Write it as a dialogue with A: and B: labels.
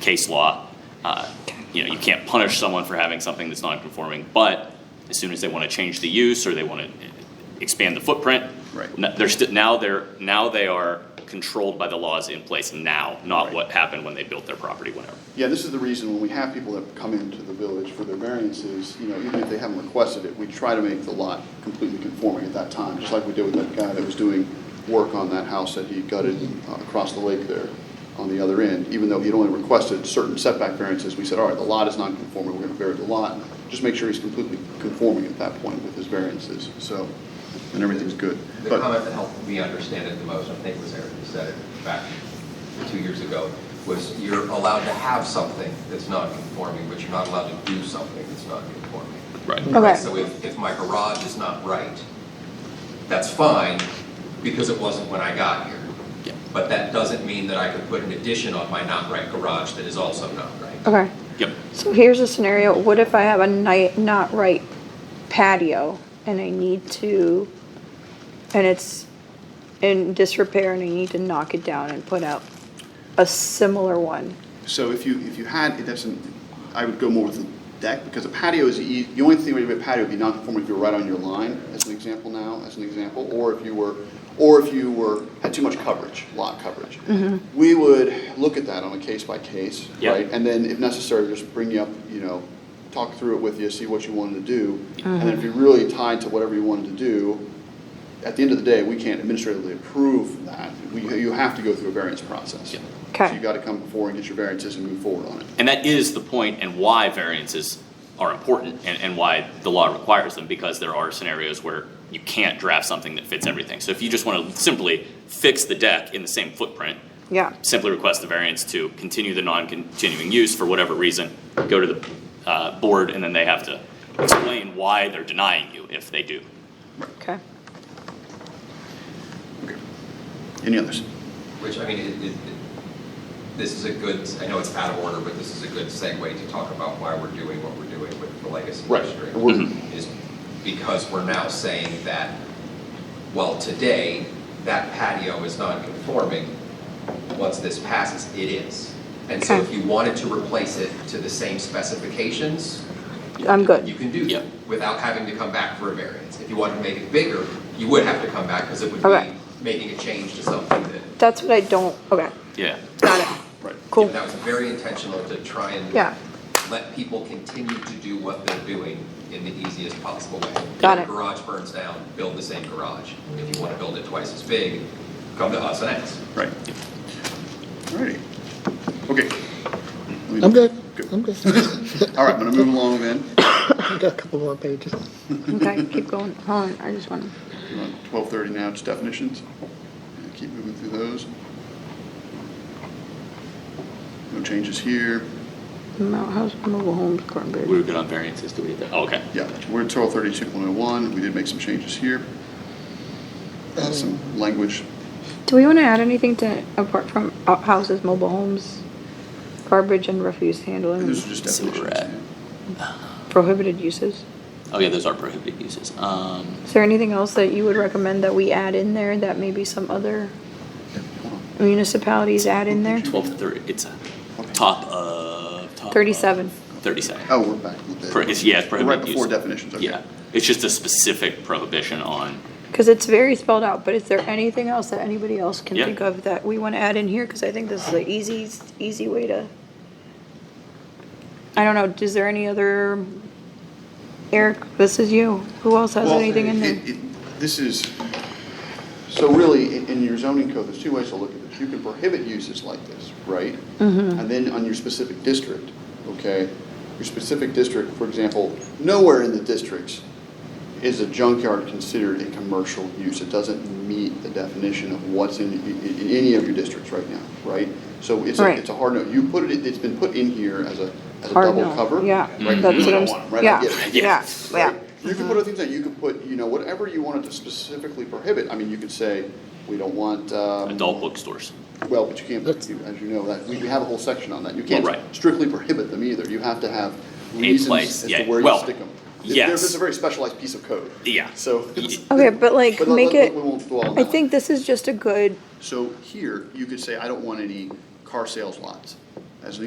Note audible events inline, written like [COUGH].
A: case law. Uh, You know, you can't punish someone for having something that's non-conforming, but as soon as they want to change the use or they want to expand the footprint.
B: Right.
A: n- They're still, now they're, now they are controlled by the laws in place now, not
B: Right.
A: what happened when they built their property, whenever.
B: Yeah, this is the reason when we have people that come into the village for their variances, you know, even if they haven't requested it, we try to make the lot completely conforming at that time, just like we did with that guy that was doing work on that house that he gutted uh, across the lake there on the other end. Even though he'd only requested certain setback variances, we said, all right, the lot is non-conforming, we're gonna vary the lot. Just make sure he's completely conforming at that point with his variances, so, and everything's good.
C: The
B: But-
C: comment that helped me understand it the most, I think was Eric who said it back two years ago, was you're allowed to have something that's non-conforming, but you're not allowed to do something that's non-conforming.
A: Right.
D: Okay.
C: So if, if my garage is not right, that's fine, because it wasn't when I got here.
A: Yeah.
C: But that doesn't mean that I could put an addition on my not right garage that is also not right.
D: Okay,
A: Yep,
D: so here's a scenario, what if I have a night, not right patio and I need to, and it's in disrepair and I need to knock it down and put out a similar one?
B: So if you, if you had, it doesn't, I would go more with the deck, because a patio is, ea- the only thing where you have a patio would be non-conforming if you're right on your line, as an example now, as an example, or if you were, or if you were, had too much coverage, lot coverage. We would look at that on a case by case,
A: Yeah.
B: right? And then if necessary, just bring you up, you know, talk through it with you, see what you wanted to do. And then if you're really tied to whatever you wanted to do, at the end of the day, we can't administratively approve that. We, you have to go through a variance process.
A: Yeah.
D: Okay.
B: So you gotta come before and get your variances and move forward on it.
A: and that is the point and why variances are important and, and why the law requires them, because there are scenarios where you can't draft something that fits everything. So if you just want to simply fix the deck in the same footprint,
D: Yeah,
A: simply request the variance to continue the non-continuing use for whatever reason, go to the uh, board, and then they have to explain why they're denying you if they do.
D: okay.
B: Okay. Any others?
C: Which, I mean, it, it, it- this is a good, I know it's out of order, but this is a good segue to talk about why we're doing what we're doing with the legacy
B: Right.
C: district.
B: We're-
C: Is because we're now saying that, well, today, that patio is non-conforming, once this passes, it is. And so
D: Okay.
C: if you wanted to replace it to the same specifications,
D: I'm
C: you
D: good.
C: can do that
A: Yep.
C: without having to come back for a variance. If you wanted to make it bigger, you would have to come back because it would
D: Okay.
C: be making a change to something that
D: That's what I don't, okay,
A: Yeah.
D: got it,
B: Right.
D: cool.
C: That was very intentional to try and
D: Yeah.
C: let people continue to do what they're doing in the easiest possible way.
D: Got it.
C: Garage burns down, build the same garage. If you want to build it twice as big, come to us and ask.
B: Right. Alrighty. Okay.
E: I'm good. I'm good. [LAUGHS]
B: All right, I'm gonna move along then.
E: I got a couple more pages.
D: Okay, keep going, hold on, I just wanna,
B: We're on twelve thirty now, just definitions. Keep moving through those. No changes here.
D: Mount House Mobile Homes, Cornbury.
A: We were good on variances, do we get that? Oh, okay.
B: Yeah, we're at twelve thirty-two point oh one. We did make some changes here. Uh, Some language.
D: Do we want to add anything to, apart from outhouses, mobile homes, garbage and refuse handling,
B: Those are just
A: See where we're
B: definitions.
A: at.
B: yeah.
D: prohibited uses?
A: Oh, yeah, those are prohibited uses. Um,
D: Is there anything else that you would recommend that we add in there that maybe some other municipalities add in there?
A: twelve thirty, it's a top of, top of-
D: Thirty-seven.
A: Thirty-seven.
B: Oh, we're back with
A: Pro-
B: the,
A: it's- Yeah, it's
B: we're right
A: prohibited
B: before
A: uses.
B: definitions, okay.
A: Yeah, it's just a specific prohibition on,
D: Because it's very spelled out, but is there anything else that anybody else can
A: Yeah.
D: think of that we want to add in here? Because I think this is the easy, easy way to. I don't know, is there any other, Eric, this is you, who else has
B: Well,
D: anything in there?
B: it- it- This is, so really, in, in your zoning code, there's two ways to look at this. You can prohibit uses like this, right?
D: Mm-hmm.
B: And then on your specific district, okay? Your specific district, for example, nowhere in the districts is a junkyard considered a commercial use. It doesn't meet the definition of what's in, in, in any of your districts right now, right? So it's a,
D: Right.
B: it's a hard no. You put it, it's been put in here as a, as a
D: Hard
B: double
D: no,
B: cover.
D: yeah,
B: Right,
D: that's
B: you
D: what
B: don't
D: I'm s-
B: want 'em, right? I
D: yeah,
B: get it.
D: yeah, yeah.
B: Right? You can put other things that you could put, you know, whatever you wanted to specifically prohibit. I mean, you could say, we don't want, um.
A: adult bookstores.
B: Well, but you can't,
E: That's-
B: you- as you know, that, we we have a whole section on that. You can't
A: Right.
B: strictly prohibit them either. You have to have reasons
A: place,
B: as
A: yeah,
B: to where you
A: well,
B: stick them.
A: yes.
B: It's a very specialized piece of code.
A: Yeah.
B: So. [LAUGHS]
A: Y-
D: Okay, but like,
B: But let-
D: make
B: let-
D: it,
B: we won't dwell on that
D: I
B: one.
D: think this is just a good,
B: So here, you could say, I don't want any car sales lots.